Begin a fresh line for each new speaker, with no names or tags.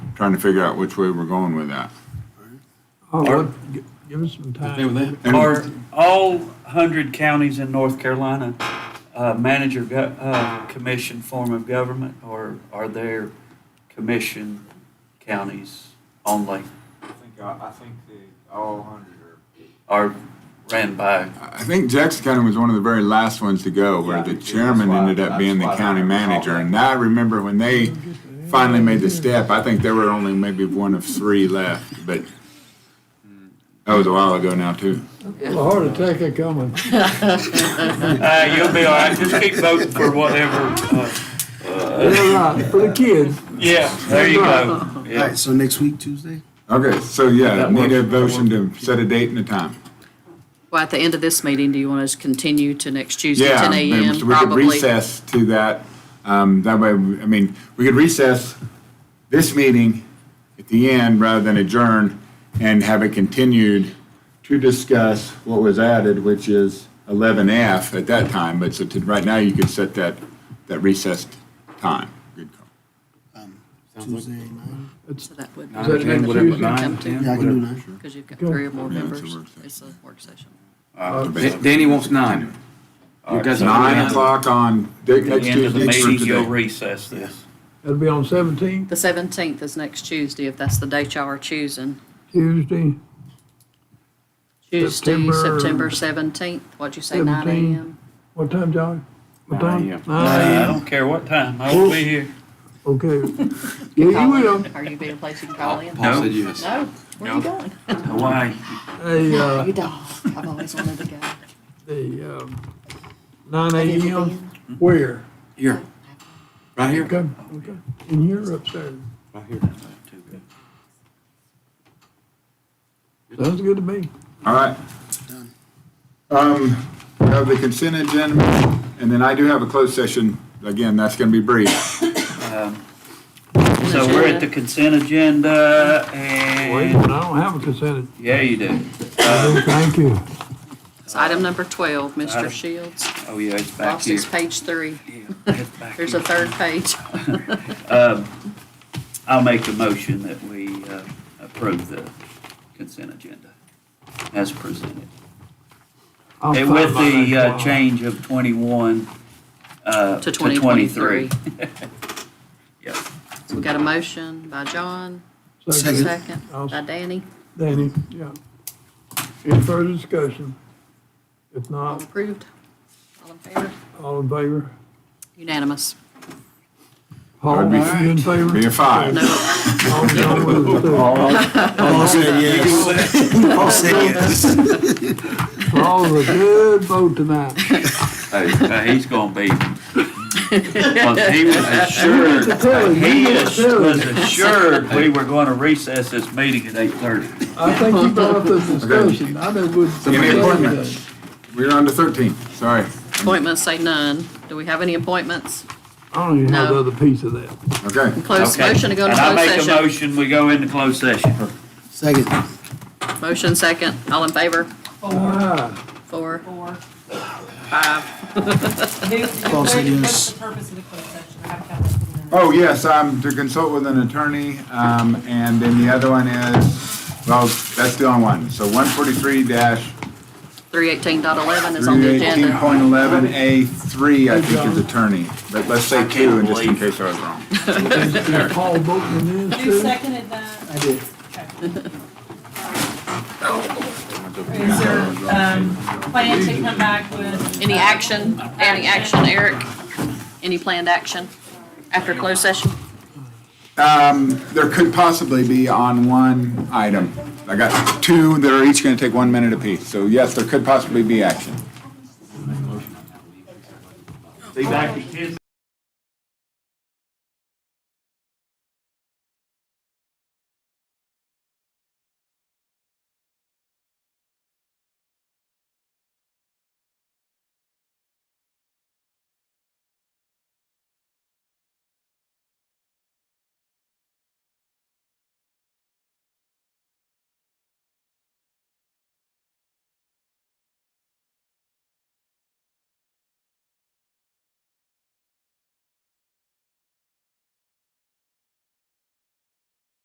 trying to figure out which way we're going with that.
Oh,
Or-
what- gi- Give us some
Okay
time.
with that?
And-
Are all 100 counties in North Carolina uh, manager go- uh, commission form of government, or are there commission counties only,
I think, I think the, all hundred are.
are ran by?
I think Jackson County was one of the very last ones to go, where
Yeah,
the
that's
chairman
why-
ended up
that's
being the
why I
county
recall
manager.
that.
And I remember when they finally made the step, I think there were only maybe one of three left, but that was a while ago now, too.
A heart attack a coming.
Uh, You'll be all right, just keep voting for whatever. uh,
You're right, for the kids.
Yeah, there you go.
All
Yeah.
right, so next week, Tuesday?
Okay, so yeah,
That
need a
works.
motion to set a date and a time.
Well, at the end of this meeting, do you want us to continue to next Tuesday,
Yeah,
10 a.m.?
so we could
Probably.
recess to that. Um, that way, I mean, we could recess this meeting at the end rather than adjourn and have it continued to discuss what was added, which is 11F at that time. But so to, right now, you could set that, that recessed time. Good call.
Tuesday, nine?
So that would.
Is that next Tuesday?
Come to,
Yeah, I can do nine.
because you've got
Go.
three or more
Yeah, it's a
members.
work session.
It's a work session.
Uh,
Da-
Danny wants nine. You guys want
Nine o'clock on the
At
next
the end of the
Tuesday for
meeting, you'll
today.
recess this.
That'll be on seventeenth,
The 17th is next Tuesday, if that's the date y'all are choosing.
Tuesday.
Tuesday,
September-
September 17th, what'd you say, 9
17th.
a.m.?
What time, Johnny? What time?
Nine AM.
Uh, I
Nine AM.
don't care what time, I will be here.
Okay. Yeah, you will.
Are you being a place you can call in?
Paul said yes.
No, where are you going?
Hawaii.
Hey,
No,
uh,
you don't. I've always wanted to go.
the, um, nine
Have you ever
AM,
been?
Hmm?
where?
Here. Right here.
Okay, okay. In here upstairs.
Right here.
Sounds good to me.
All right.
Done.
Um, we have the consent agenda, and then I do have a closed session. Again, that's going to be brief.
Um, So we're at the consent agenda
Wait,
and,
I don't have a consent.
yeah, you Uh, do.
agenda. Thank you.
It's item number 12,
Item-
Mr. Shields.
Oh, yeah, it's back
Lost
here.
his page three.
Yeah, it's back
There's
here.
a third page.
Um, I'll make a motion that we uh, approve the consent agenda as presented.
I'll
And
find
With
my
the
next
uh,
one.
change of 21 uh, to
To
23.
2023.
Yep.
So we got a motion by John,
Second.
Second.
second by Danny.
Danny, yeah. Any further discussion? If
All
not,
approved? All in favor?
all in favor?
Unanimous.
Paul,
Be-
you in favor?
Be a five.
No,
All John Woods, too.
Paul said yes. Paul said yes.
Paul was a good vote tonight.
Hey, uh, He's going to be, 'cause he was assured,
Kelly,
he
you went
is-
to Kelly.
was assured we were going to recess this meeting at 8:30.
I think you brought up this discussion. I know what.
Any appointments? We're on to thirteen, sorry.
appointments say none. Do we have any appointments?
I don't even have the
No.
other piece of that.
Okay.
Close,
Okay.
motion to go into
And I make
closed
a
session.
motion, we go into closed session.
Second.
Motion second, all in favor?
Ah,
Four,
Or
five.
They,
Close it, yes.
what's the purpose of the closed session? I haven't got that in there.
Oh, yes, um, to consult with an attorney, um, and then the other one is, well, that's the only one. So one forty-three dash
318.11 is on
three
the
eighteen
agenda.
point eleven A three, I think is attorney. But let's say two, and just in case I was wrong.
is is Paul voting in this
You
too?
seconded that?
I did.
Is there, um, plan to come back with?
Any action, any action, Eric? Any planned action after closed session?
Um, there could possibly be on one item. I got two that are each gonna take one minute apiece. So yes, there could possibly be action.
Be back at 10.